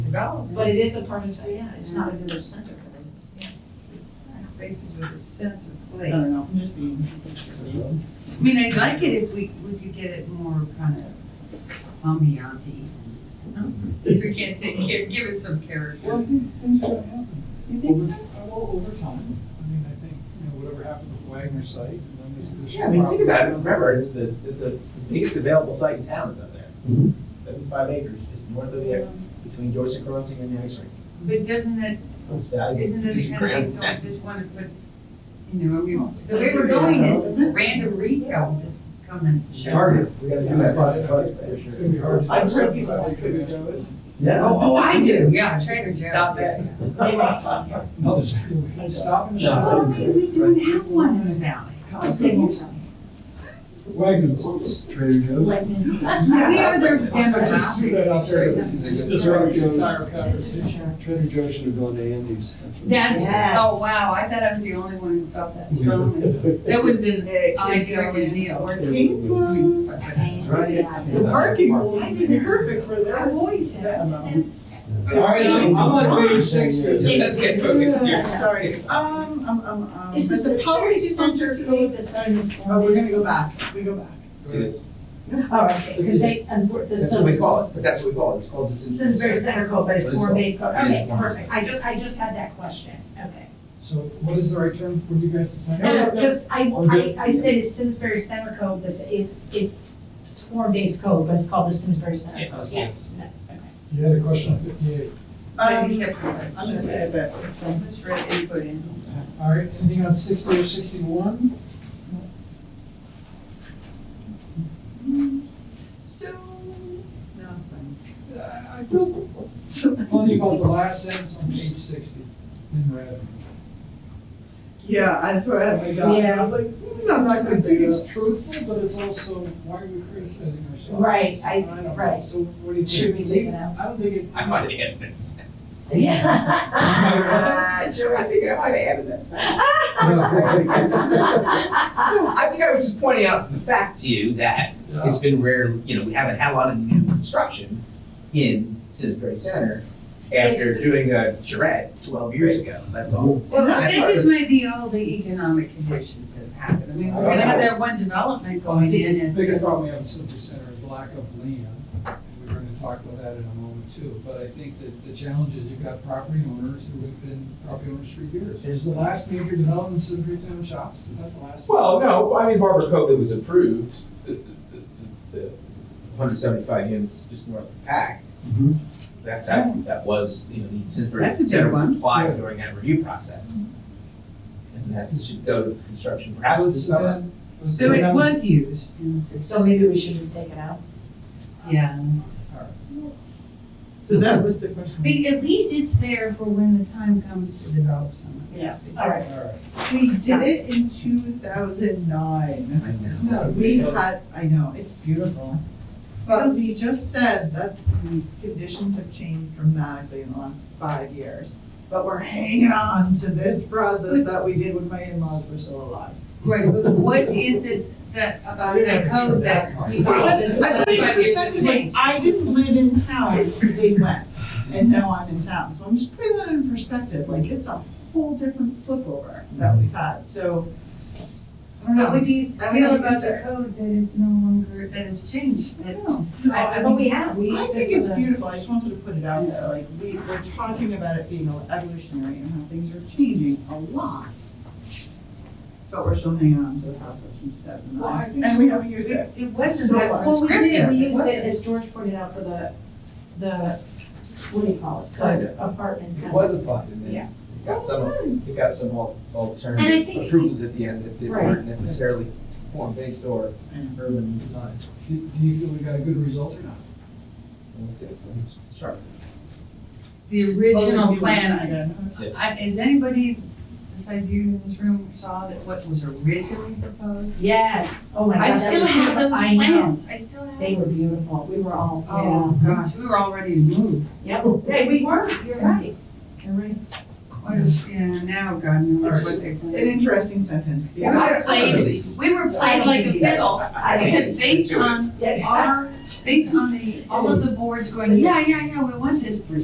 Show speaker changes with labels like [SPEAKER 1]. [SPEAKER 1] development
[SPEAKER 2] But it is a part of, oh, yeah, it's not a village center, but it is, yeah.
[SPEAKER 1] places with a sense of place.
[SPEAKER 3] I don't know, I'm just being, it's a little-
[SPEAKER 1] I mean, I'd like it if we, we could get it more kind of ambianty. Since we can't say, give, give it some character.
[SPEAKER 4] Well, I think things are gonna happen.
[SPEAKER 1] You
[SPEAKER 4] Over- uh, Well, over time, I mean, I think, you know, whatever happened with Wagner site, and then there's this.
[SPEAKER 5] Yeah, I mean, think about it, remember, it's the, the, the biggest available site in town is up there.
[SPEAKER 4] Mm-hmm.
[SPEAKER 5] Seventy-five acres, just north of there, between Dorset Crossing and Nancy.
[SPEAKER 1] But doesn't that,
[SPEAKER 5] It's valuable.
[SPEAKER 1] isn't that
[SPEAKER 5] It's
[SPEAKER 1] the kind of
[SPEAKER 5] grand.
[SPEAKER 1] thing, don't just wanna put, you know, I mean, the way we're going is, is random retail is coming.
[SPEAKER 5] Target, we gotta do
[SPEAKER 4] That's
[SPEAKER 5] that.
[SPEAKER 4] why I-
[SPEAKER 5] Target,
[SPEAKER 4] I- It's
[SPEAKER 5] for
[SPEAKER 4] gonna
[SPEAKER 5] sure.
[SPEAKER 4] be hard. to-
[SPEAKER 5] I've heard people like Trader Joe's. Yeah.
[SPEAKER 1] Oh, oh, I do, yeah, Trader Joe's. Stop it.
[SPEAKER 4] No, this- I stop and
[SPEAKER 1] Well,
[SPEAKER 4] shop.
[SPEAKER 1] we we don't have one in the valley.
[SPEAKER 2] Staples,
[SPEAKER 4] Wagner's, Trader Joe's.
[SPEAKER 2] Wegmans.
[SPEAKER 1] We are their vendor.
[SPEAKER 4] Just threw that out there.
[SPEAKER 5] This is a good-
[SPEAKER 4] Just throw it
[SPEAKER 2] This is-
[SPEAKER 4] to our
[SPEAKER 2] This is
[SPEAKER 4] conversation.
[SPEAKER 2] sure.
[SPEAKER 6] Trader Joe's should have gone to Andy's.
[SPEAKER 1] That's,
[SPEAKER 2] Yes.
[SPEAKER 1] oh, wow, I thought I was the only one who felt that strongly. That would've been
[SPEAKER 5] Hey,
[SPEAKER 1] I freaking deal.
[SPEAKER 5] Right.
[SPEAKER 2] Yeah,
[SPEAKER 5] The parking lot would be perfect for
[SPEAKER 2] I've
[SPEAKER 5] that.
[SPEAKER 2] always had that.
[SPEAKER 4] All right, I'm I'm on page six.
[SPEAKER 5] Let's get focused here.
[SPEAKER 2] Yeah.
[SPEAKER 3] Sorry, um, um, um, um.
[SPEAKER 2] Is
[SPEAKER 3] but
[SPEAKER 2] this the policy center code the same as
[SPEAKER 3] Oh, we're gonna
[SPEAKER 2] forms?
[SPEAKER 3] go back, we go back.
[SPEAKER 5] It is.
[SPEAKER 2] Oh, okay, because they, unfor- the,
[SPEAKER 5] That's
[SPEAKER 2] so
[SPEAKER 5] what we
[SPEAKER 2] this
[SPEAKER 5] call it, but that's what we call it, it's called the citizen
[SPEAKER 2] Simsbury Center code, but it's
[SPEAKER 5] But it's
[SPEAKER 2] form-based
[SPEAKER 5] all-
[SPEAKER 2] code,
[SPEAKER 5] it is
[SPEAKER 2] okay,
[SPEAKER 5] form-based.
[SPEAKER 2] perfect, I just, I just had that question, okay.
[SPEAKER 4] So what is the right term for you guys to sign?
[SPEAKER 2] No, no, Uh, just, I,
[SPEAKER 4] Okay.
[SPEAKER 2] I, I said it's Simsbury Center code, this is, it's, it's form-based code, but it's called the Simsbury Center code, yeah.
[SPEAKER 4] You had a question on fifty-eight.
[SPEAKER 3] Um, I'm gonna say it, but from this red input in.
[SPEAKER 4] All right, anything on sixty or sixty-one?
[SPEAKER 3] So, no, it's fine.
[SPEAKER 4] Uh, I feel funny about the last sentence on page sixty in red.
[SPEAKER 3] Yeah, I threw it at my God, and I was like, mm, I'm not
[SPEAKER 4] I
[SPEAKER 3] gonna
[SPEAKER 4] think
[SPEAKER 3] do
[SPEAKER 4] it's
[SPEAKER 3] this.
[SPEAKER 4] truthful, but it's also, why are we criticizing ourselves?
[SPEAKER 2] Right, I-
[SPEAKER 4] don't know.
[SPEAKER 2] right.
[SPEAKER 4] So what do you think?
[SPEAKER 2] Should we take it out?
[SPEAKER 4] I don't think it,
[SPEAKER 5] I might have added that.
[SPEAKER 2] Yeah.
[SPEAKER 5] Sure, I think I might have added that.
[SPEAKER 2] Right,
[SPEAKER 5] So I think I was just pointing out the fact to you that it's been rare, you know, we haven't had a lot of new construction in Simsbury Center after
[SPEAKER 2] just-
[SPEAKER 5] doing a charrette twelve years ago, that's all.
[SPEAKER 1] Well,
[SPEAKER 5] That's-
[SPEAKER 1] this is maybe all the economic conditions that have happened. I mean, we're gonna have that one development
[SPEAKER 4] I
[SPEAKER 1] going in
[SPEAKER 4] think the
[SPEAKER 1] and.
[SPEAKER 4] biggest problem we have in Simsbury Center is lack of land. And We're gonna talk about that in a moment too, but I think that the challenge is you've got property owners who have been property owners for years. Is the last major development in Simsbury Town Shops, is that the last?
[SPEAKER 5] Well, no, I mean Barbara Cove that was approved, the, the, the hundred seventy-five units just north of Pack.
[SPEAKER 6] Mhm.
[SPEAKER 5] That, that, that was, you know, the Simsbury
[SPEAKER 1] That's a good
[SPEAKER 5] Center was
[SPEAKER 1] one.
[SPEAKER 5] applied
[SPEAKER 4] Yeah.
[SPEAKER 5] during that review process. And that should go to construction perhaps
[SPEAKER 4] So
[SPEAKER 5] this
[SPEAKER 4] it's
[SPEAKER 5] summer.
[SPEAKER 4] been- was
[SPEAKER 1] So it
[SPEAKER 4] been-
[SPEAKER 1] was used. in the
[SPEAKER 2] So maybe we should just take it out?
[SPEAKER 1] Yeah.
[SPEAKER 3] So that was the question.
[SPEAKER 1] But at least it's there for when the time comes to develop some of
[SPEAKER 2] Yeah,
[SPEAKER 1] this.
[SPEAKER 2] all right.
[SPEAKER 4] All right.
[SPEAKER 3] We did it in two thousand nine.
[SPEAKER 5] I know.
[SPEAKER 3] We had, I know, it's beautiful. But we just said that the conditions have changed dramatically in the last five years. But we're hanging on to this process that we did when my in-laws were still alive.
[SPEAKER 1] Right, but what is it that, about
[SPEAKER 4] You're
[SPEAKER 1] that
[SPEAKER 4] not sure
[SPEAKER 1] code
[SPEAKER 4] that
[SPEAKER 1] that
[SPEAKER 4] part.
[SPEAKER 1] you felt
[SPEAKER 3] Well, I
[SPEAKER 1] that
[SPEAKER 3] put it
[SPEAKER 1] five
[SPEAKER 3] in
[SPEAKER 1] years of
[SPEAKER 3] perspective, like,
[SPEAKER 1] change?
[SPEAKER 3] I didn't live in town, they went, and now I'm in town, so I'm just putting that in perspective, like, it's a whole different flip over that we've had, so. I don't
[SPEAKER 1] But
[SPEAKER 3] know,
[SPEAKER 1] what do you
[SPEAKER 3] I mean,
[SPEAKER 1] feel about
[SPEAKER 3] it's-
[SPEAKER 1] the code that is no longer, that has changed,
[SPEAKER 3] I
[SPEAKER 1] that
[SPEAKER 3] don't know.
[SPEAKER 1] I- I
[SPEAKER 2] But we have, we
[SPEAKER 3] I
[SPEAKER 2] used to.
[SPEAKER 3] think it's beautiful, I just wanted to put it out there, like, we, we're talking about it being evolutionary and how things are changing a lot. But we're still hanging on to the process from two thousand
[SPEAKER 4] Well, I
[SPEAKER 3] nine,
[SPEAKER 4] think
[SPEAKER 3] and we
[SPEAKER 4] so.
[SPEAKER 3] haven't used it.
[SPEAKER 1] It it wasn't that
[SPEAKER 3] Well,
[SPEAKER 2] Well, we did,
[SPEAKER 1] prescriptive.
[SPEAKER 2] we used
[SPEAKER 1] wasn't.
[SPEAKER 2] it, as George pointed out, for the, the, what do you call it,
[SPEAKER 5] Kind
[SPEAKER 2] the apartments.
[SPEAKER 5] It
[SPEAKER 2] kind
[SPEAKER 5] was applied, and then
[SPEAKER 2] Yeah.
[SPEAKER 5] it got some, it got some al-
[SPEAKER 2] And I
[SPEAKER 5] alternative
[SPEAKER 2] think-
[SPEAKER 5] approvals at the end that they
[SPEAKER 2] Right.
[SPEAKER 5] weren't necessarily form-based or urban design.
[SPEAKER 4] Do do you feel we got a good result or not?
[SPEAKER 5] Let's see, let's start.
[SPEAKER 1] The
[SPEAKER 3] Well,
[SPEAKER 1] original
[SPEAKER 3] we-
[SPEAKER 1] plan, I-
[SPEAKER 5] Yeah.
[SPEAKER 1] I, has anybody besides you in this room saw that what was originally proposed?
[SPEAKER 2] Yes, oh my god.
[SPEAKER 1] I
[SPEAKER 2] that
[SPEAKER 1] still
[SPEAKER 2] was
[SPEAKER 1] have
[SPEAKER 2] beautiful.
[SPEAKER 1] those
[SPEAKER 2] I know,
[SPEAKER 1] plans, I still have.
[SPEAKER 2] they
[SPEAKER 1] them.
[SPEAKER 2] were beautiful, we were all,
[SPEAKER 1] Oh, gosh, we were all ready to move.
[SPEAKER 2] yeah, yep, Hey, we were, you're right, you're right.
[SPEAKER 1] What is, yeah, now God knows what they've
[SPEAKER 3] An
[SPEAKER 1] done.
[SPEAKER 3] interesting sentence.
[SPEAKER 1] We were played, we were played like a fiddle, because based on
[SPEAKER 2] Yeah.
[SPEAKER 1] our, based on the, all of the boards going, yeah, yeah, yeah, we want this for